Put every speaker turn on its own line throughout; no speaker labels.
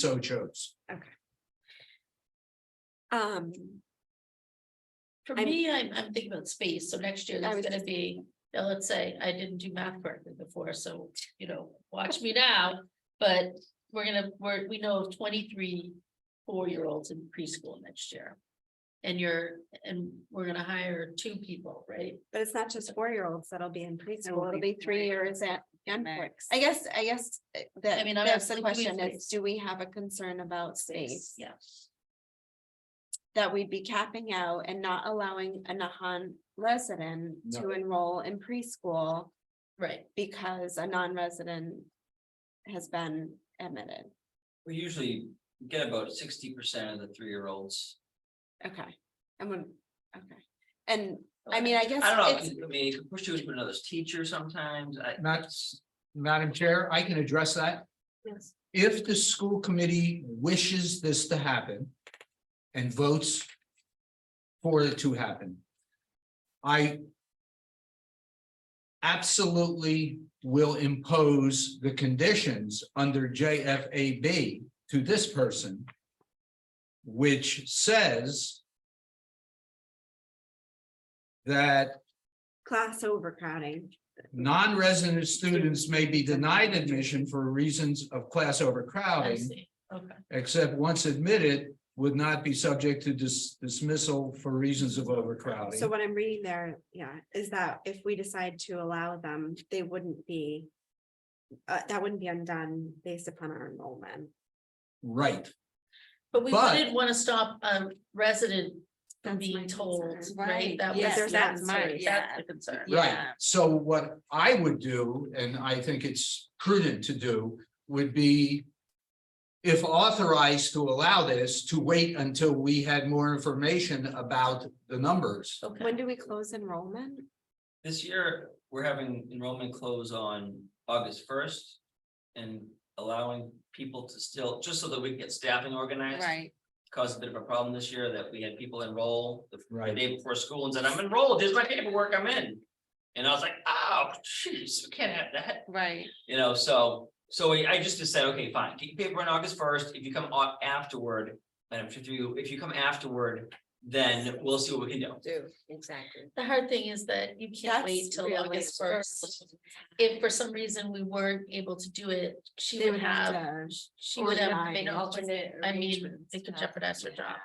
so chose.
Um,
For
I'm-
me, I'm, I'm thinking about space, so next year
was
that's gonna be, now let's say I didn't do math correctly before, so, you know, watch me now. But we're gonna, we're, we know of twenty-three four-year-olds in preschool next year. And you're, and we're gonna hire two people, right?
but it's not just four-year-olds that'll be in preschool, it'll
be
be three
three.
years at Gunflix.
I guess, I guess uh, that,
mean, I'm
that's the
asking, do we
question
face-
is, do we have a concern about space?
Yeah,
That we'd be capping out and not allowing a Nahan resident
No.
to enroll in preschool
right,
because a non-resident has been admitted.
We usually get about sixty percent of the three-year-olds.
Okay, I'm gonna, okay. And I mean, I guess
I don't
it's,
know, I mean, you could push you into another teacher sometimes, I.
Not, Madam Chair, I can address that.
yes,
If the school committee wishes this to happen and votes for it to happen, I absolutely will impose the conditions under JFAB to this person, which says that
class overcrowding.
Non-resident students may be denied admission for reasons of class
I
overcrowding,
see, okay,
except once admitted, would not be subject to dis- dismissal for reasons of
So
overcrowding.
what I'm reading there, yeah, is that if we decide to allow them, they wouldn't be. Uh, that wouldn't be undone based upon our enrollment.
Right,
but we
But-
didn't wanna stop a resident from
That's my
being told,
concern.
right?
Right,
That
yes,
was,
there's
that
that
concern,
much,
that's
yeah.
the concern.
right.
Yeah.
So what I would do, and I think it's prudent to do, would be if authorized to allow this, to wait until we had more information about the numbers.
Okay.
When do we close enrollment?
This year, we're having enrollment close on August first. And allowing people to still, just so that we can get staffing organized. Caused a bit of a problem this year that we had people enroll the the
Right.
day before school and said, I'm enrolled, here's my paperwork, I'm in. And I was like, oh, jeez, we can't have that,
right.
you know, so, so I I just said, okay, fine, get your paper on August first, if you come on afterward. Madam Chair, through you, if you come afterward, then we'll see what we can do.
Do, exactly.
The hard thing is that you can't wait
That's
till
really.
August first. If for some reason we weren't able to do it, she would have, she would have to make an alternate, I mean, it could jeopardize her job.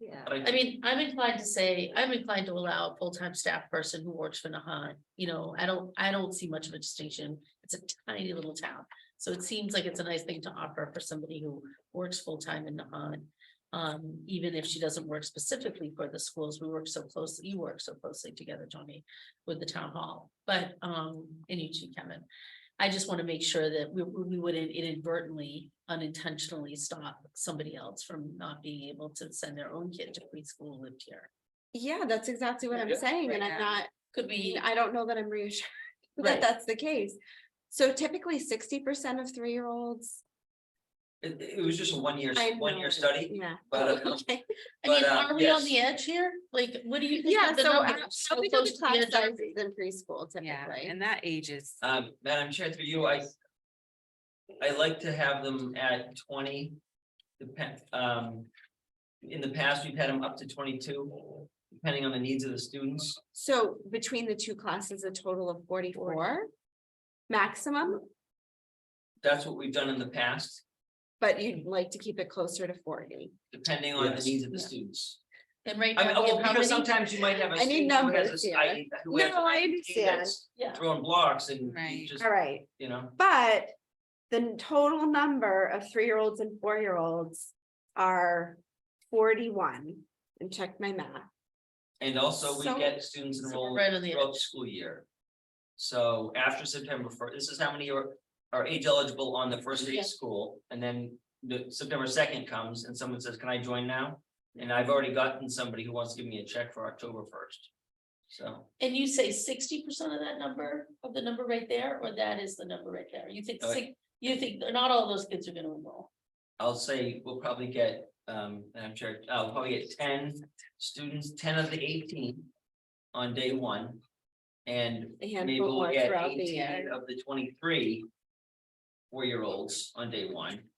Yeah.
But
I mean, I'm inclined to say, I'm inclined to allow a full-time staff person who works for Nahat, you know, I don't, I don't see much of a distinction. It's a tiny little town, so it seems like it's a nice thing to offer for somebody who works full-time in Nahat. Um, even if she doesn't work specifically for the schools, we work so closely, you work so closely together, Tony, with the town hall, but, um, and you too, Kevin. I just want to make sure that we, we wouldn't inadvertently, unintentionally stop somebody else from not being able to send their own kid to preschool who lived here.
Yeah, that's exactly what I'm
Yeah.
saying, and
Right
I'm
now.
not,
Could
I mean,
we,
I don't know that I'm reassured that
Right.
that's the case. So typically sixty percent of three-year-olds.
It it was just a one-year,
I know,
one-year study,
Yeah.
but
um,
uh,
Okay.
I mean,
but, uh,
are we on
yes.
the edge here? Like, what do you? think
Yeah,
of the
so
numbers?
uh,
So
how big are
close
the
to the
class
edge are
sizes
we?
in preschool typically?
and that ages.
um, Madam Chair, through you, I. I like to have them at twenty. Depend, um. In the past, we've had them up to twenty-two, depending on the needs of the students.
So between the two classes, a total of forty-four maximum,
That's what we've done in the past,
but you'd like to keep it closer to forty.
depending on the
Yes.
needs of the students.
And right
I mean,
now, we
well,
have how
because
many?
sometimes you might have. a
I need
student who has
numbers
a-
here.
I- who has an
I
IEP that's
Yeah,
Throwing blocks and you
Right.
just,
All right,
you know,
but the total number of three-year-olds and four-year-olds are forty-one. And check my math.
and also we
So-
get students
so we're
enrolled
right on the
throughout
edge.
the school year. So after September first, this is how many are, are age eligible on the first day
Yeah.
of school, and then the September second comes and someone says, can I join now? And I've already gotten somebody who wants to give me a check for October first. So
And you say sixty percent of that number, of the number right there, or that is the number right there? You think
Uh,
six, you think not all those kids are gonna enroll?
I'll say we'll probably get, um, and I'm sure, I'll probably get ten students, ten of the eighteen on day one. And
A
maybe
handful
we'll
more
get
throughout the
eighteen
year.
of the twenty-three four-year-olds on day one.